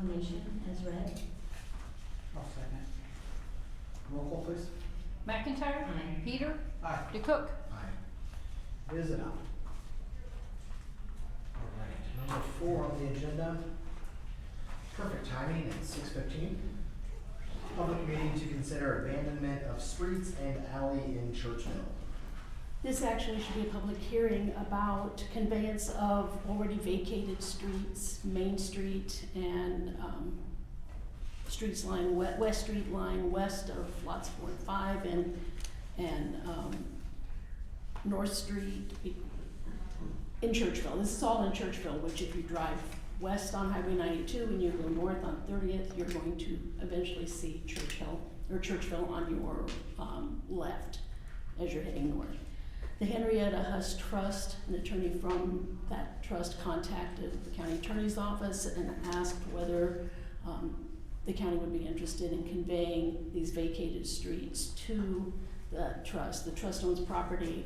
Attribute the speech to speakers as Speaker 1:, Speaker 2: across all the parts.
Speaker 1: resolution um, as read.
Speaker 2: I'll second. Roll call please.
Speaker 3: McIntyre.
Speaker 1: Aye.
Speaker 3: Peter.
Speaker 2: Aye.
Speaker 3: DeCook.
Speaker 2: Aye. It is an aye. All right, number four on the agenda,
Speaker 4: Perfect timing at six fifteen. Public meeting to consider abandonment of streets and alley in Churchill.
Speaker 5: This actually should be a public hearing about conveyance of already vacated streets, Main Street and, um, streets lying we- West Street lying west of lots four and five and, and, um, North Street be- in Churchville. This is all in Churchville, which if you drive west on Highway ninety-two and you go north on Thirtieth, you're going to eventually see Churchill, or Churchville on your, um, left as you're heading north. The Henrietta Huss Trust, an attorney from that trust contacted the county attorney's office and asked whether um, the county would be interested in conveying these vacated streets to the trust. The trust owns property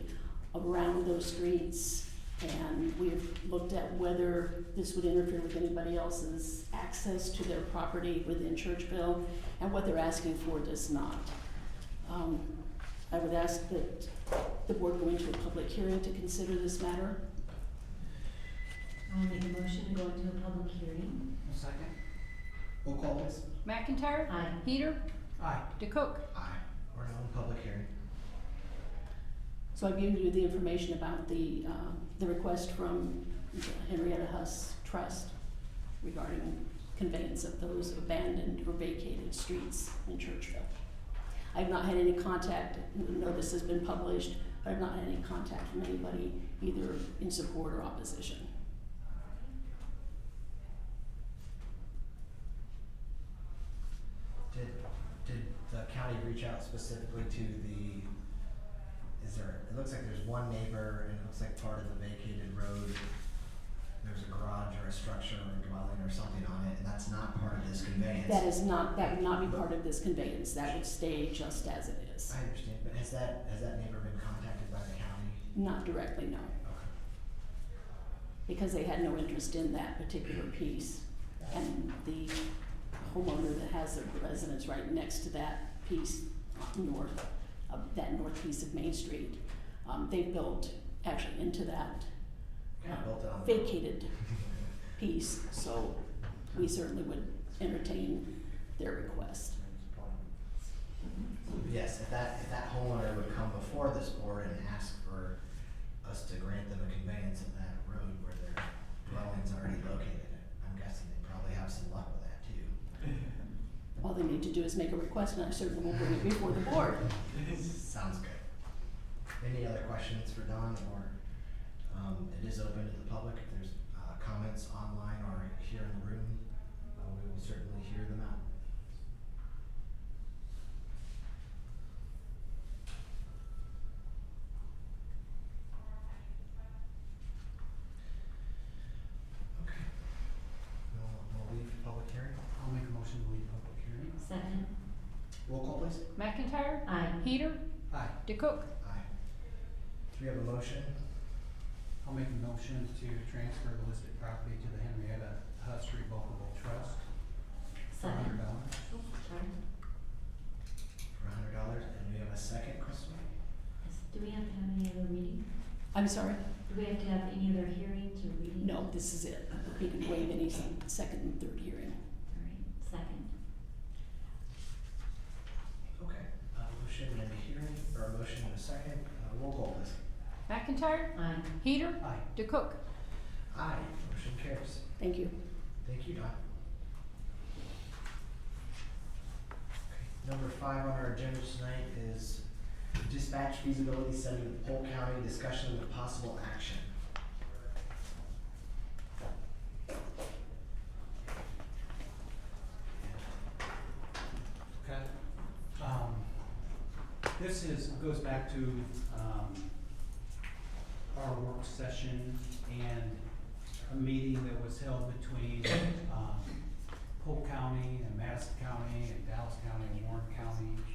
Speaker 5: around those streets, and we have looked at whether this would interfere with anybody else's access to their property within Churchville, and what they're asking for does not. Um, I would ask that the board go into a public hearing to consider this matter.
Speaker 1: I'll make a motion to go into a public hearing.
Speaker 2: I'll second. Roll call please.
Speaker 3: McIntyre.
Speaker 1: Aye.
Speaker 3: Peter.
Speaker 2: Aye.
Speaker 3: DeCook.
Speaker 4: Aye. We're now in public hearing.
Speaker 5: So I've given you the information about the, um, the request from the Henrietta Huss Trust regarding conveyance of those abandoned or vacated streets in Churchville. I've not had any contact, no notice has been published, but I've not had any contact from anybody either in support or opposition.
Speaker 4: Did, did the county reach out specifically to the, is there, it looks like there's one neighbor and it looks like part of the vacated road. There's a garage or a structure or a dwelling or something on it and that's not part of this conveyance.
Speaker 5: That is not, that would not be part of this conveyance, that would stay just as it is.
Speaker 4: I understand, but has that, has that neighbor been contacted by the county?
Speaker 5: Not directly, no,
Speaker 4: Okay.
Speaker 5: because they had no interest in that particular piece. And the homeowner that has their residence right next to that piece north, of that north piece of Main Street, um, they built actually into that
Speaker 4: Kind of built it on the.
Speaker 5: vacated piece, so we certainly would entertain their request.
Speaker 4: Yes, if that, if that homeowner would come before this board and ask for us to grant them a conveyance of that road where their dwelling's already located, I'm guessing they probably have some luck with that too.
Speaker 5: All they need to do is make a request, and I certainly will bring it before the board.
Speaker 4: Sounds good. Any other questions for Don or, um, it is open to the public, if there's, uh, comments online or here in the room, uh, we will certainly hear them out. Okay. We'll, we'll leave public hearing.
Speaker 2: I'll make a motion to leave public hearing.
Speaker 1: Second.
Speaker 4: Roll call please.
Speaker 3: McIntyre.
Speaker 1: Aye.
Speaker 3: Peter.
Speaker 2: Aye.
Speaker 3: DeCook.
Speaker 4: Aye. Do we have a motion?
Speaker 2: I'll make a motion to transfer the listed property to the Henrietta Huss Revocable Trust for a hundred
Speaker 1: Second.
Speaker 2: dollars.
Speaker 1: Oh, sorry.
Speaker 4: for a hundred dollars, and we have a second, Crystal?
Speaker 1: Yes. Do we have to have any other reading?
Speaker 5: I'm sorry?
Speaker 1: Do we have to have any other hearings or reading?
Speaker 5: No, this is it. We can waive any s- second and third hearing.
Speaker 1: All right, second.
Speaker 4: Okay. A Uh, motion and a hearing, or a motion and a second, uh, roll call please.
Speaker 3: McIntyre.
Speaker 1: Aye.
Speaker 3: Peter.
Speaker 2: Aye.
Speaker 3: DeCook.
Speaker 4: Aye, motion carries.
Speaker 5: Thank you.
Speaker 4: Thank you, Don. Okay, Number five on our agenda tonight is dispatch feasibility study of Polk County, discussion of possible action.
Speaker 2: Okay. Um, this is, goes back to, um, our work session and a meeting that was held between, um, Polk County and Madison County and Dallas County and Warren County